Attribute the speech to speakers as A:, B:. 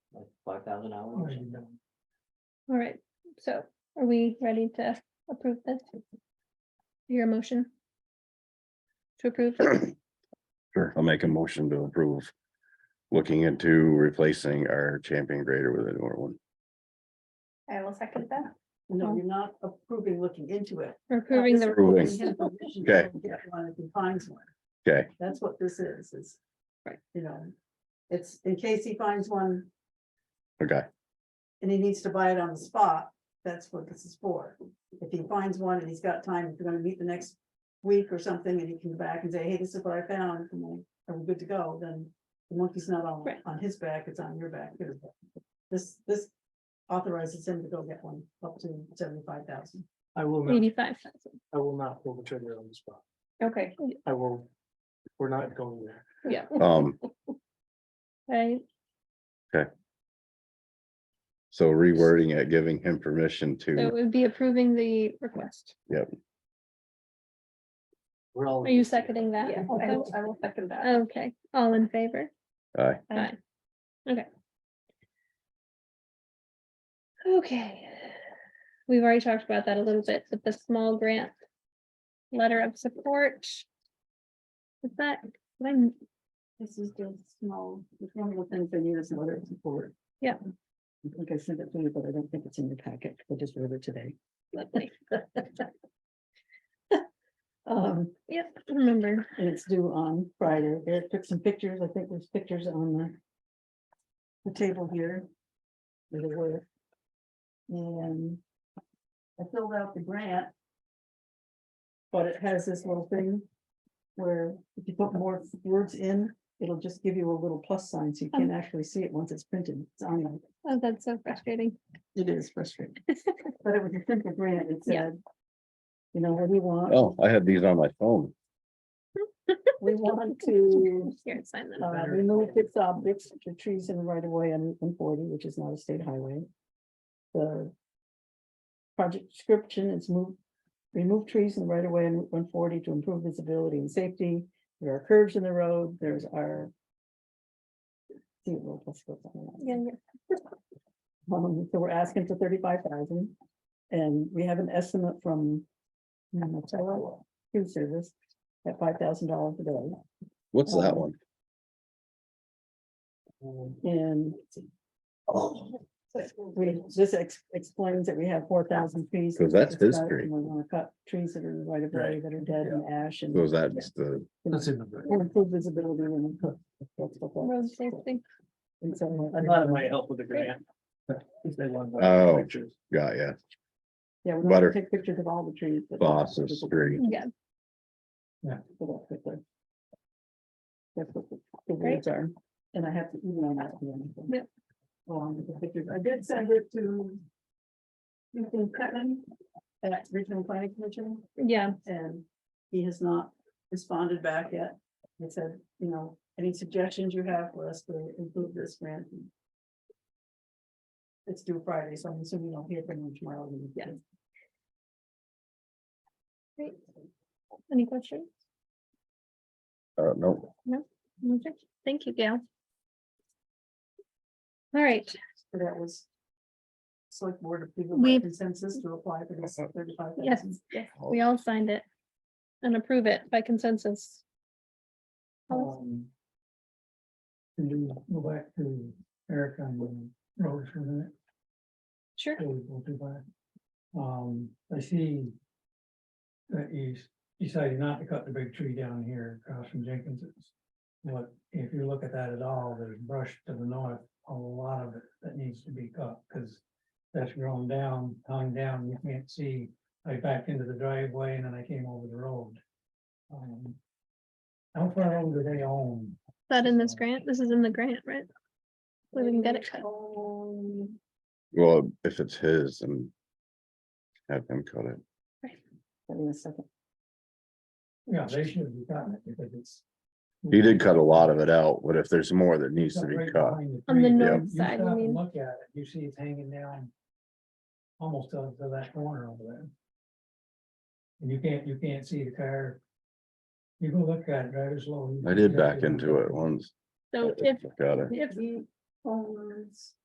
A: five thousand dollars.
B: All right, so are we ready to approve this? Your motion? To approve,
C: Sure, I'll make a motion to approve. Looking into replacing our champion grader with a newer one.
B: I will second that. Uh-huh.
D: No, you're not approving looking into it.
B: We're approving the,
C: Approving.
D: Giving him permission
C: Okay.
D: to go get One if he finds one.
C: Okay,
D: That's what this is, is.
B: Right.
D: You know, it's in case he finds one
C: okay,
D: and he needs to buy it on the spot, that's what this is for. If he finds one and he's got time, if you're gonna meet the next week or something, and he can go back and say, hey, this is what I found, and we are we good to go, then the monkey's not on,
B: Right.
D: on his back, it's on your back. his back. This, this authorizes him to go get one up to seventy-five thousand.
A: I will not,
B: eighty-five thousand.
A: I will not pull the trigger on the spot.
B: Okay.
A: I will, we're not going there.
B: Yeah,
C: um,
B: right,
C: so rewording it, giving him permission
B: so it
C: to,
B: would be approving the request.
A: We're all.
B: Are you seconding that?
E: Yeah, I will, I will second that.
B: Okay, all in favor?
C: uh,
B: Aye. Okay. Okay. We've already talked about that a little bit, but the small grant. Letter of support. Is that, did I m-
D: This is just small, it's one of the things they need is letter of support.
B: Yeah.
D: I think I sent it to you, but I don't think it's in your packet, I just read it today.
B: lovely,
D: Um,
B: yep, I remember,
D: And it's due on Friday. Eric took some pictures. I think there's pictures on the. The table here. where they were. And. I filled out the grant. But it has this little thing. Where if you put more words in, it'll just give you a little plus sign, so you can actually see it once it's printed. It's on there.
B: oh, that's so frustrating,
D: It is frustrating. But it was a simple grant. It
B: Yeah.
D: said. You know, what do you want?
C: oh, I had these on my phone.
D: We want to
B: here, sign that.
D: Uh, remove fixed objects, which are trees in the right of way on Route forty, which is not a state highway. The. Project description is move, remove trees in the right of way on Route one forty to improve visibility and safety. There are curves in the road, there's our. See, well, let's go down the line.
B: Yeah, yeah.
D: Um, so we're asking for thirty-five thousand, and we have an estimate from. Hmm, Monticello Food Service at five thousand dollars a day.
C: What's that one?
D: And. We, this ex- explains that we have four thousand trees.
C: Because that's
D: to
C: his
D: cut,
C: tree.
D: and We wanna cut trees that are in the right of way, that are dead and ash and.
C: Was that just the,
A: That's in the. book.
D: and Improve visibility and. that's what that-
B: Road safety,
D: and so, uh,
A: I thought it might help with the grant. If they want. the
C: Oh.
A: pictures.
C: got ya,
D: Yeah, we're
C: Butter-
D: gonna take pictures of all the trees. but-
C: Boss's tree.
B: yeah,
D: That's what the the words are, and I have to email that to you.
B: Yep.
D: Along with the pictures, I did send it to. Ethan Cutman at Regional Planning Commission,
B: yeah,
D: and he has not responded back yet. I said, you know, any suggestions you have for us to improve this grant? It's due Friday, so I'm assuming I'll hear from him tomorrow.
B: Yeah. any questions?
C: uh, no,
B: Okay. Thank you, Gail. All right,
D: So that was. Select board of people
B: We-
D: by consensus to apply for this thirty-five
B: Yes,
D: thousand.
B: yes, we all signed it. And approve it by consensus. Alice?
A: Um, Can you go back to Eric on the road for a minute?
B: Sure.
A: Really go too far. Um, I see. That you s- decided not to cut the big tree down here across from Jenkins's. But if you look at that at all, there's brush to the north, a lot of it that needs to be cut, because. That's grown down, hung down, you can't see, I backed into the driveway and then I came over the road. Um, How far over they own?
B: That in this grant, this is in the grant, right? We didn't get it cut.
C: well, if it's his and. Have him cut it.
D: In a second.
A: Yeah, they should have gotten it because it's.
C: He did cut a lot of it out, but if there's more that needs to
A: Got
C: be
A: right
C: cut,
A: behind
B: On the
A: tree.
B: north
A: You
B: side, you
A: stop and
B: mean?
A: Look at it, you see it's hanging down. Almost up to that corner over there. And you can't, you can't see the car. You go look at it, drive it slow. you
C: I
A: can
C: did
A: see
C: back
A: it's-
C: into it once.
B: So if,
C: Got it,
B: if,
D: He owns